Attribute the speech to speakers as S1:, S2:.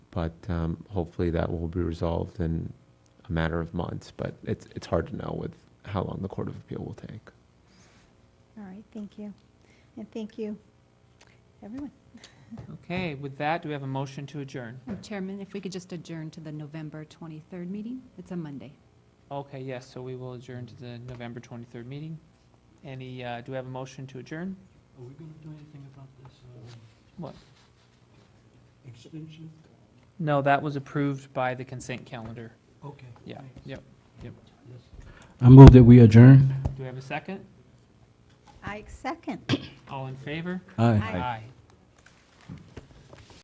S1: But um, hopefully that will be resolved in a matter of months. But it's, it's hard to know with how long the Court of Appeal will take.
S2: All right, thank you. And thank you, everyone.
S3: Okay, with that, do we have a motion to adjourn?
S4: Chairman, if we could just adjourn to the November 23rd meeting? It's a Monday.
S3: Okay, yes, so we will adjourn to the November 23rd meeting. Any, uh, do we have a motion to adjourn?
S5: Are we gonna do anything about this, um,
S3: What?
S5: extension?
S3: No, that was approved by the consent calendar.
S5: Okay.
S3: Yeah,
S5: thanks.
S3: yep, yep.
S5: Yes. I move that we adjourn.
S3: Do we have a second?
S2: I second.
S3: All in favor?
S5: Aye.
S2: Aye.
S3: Aye.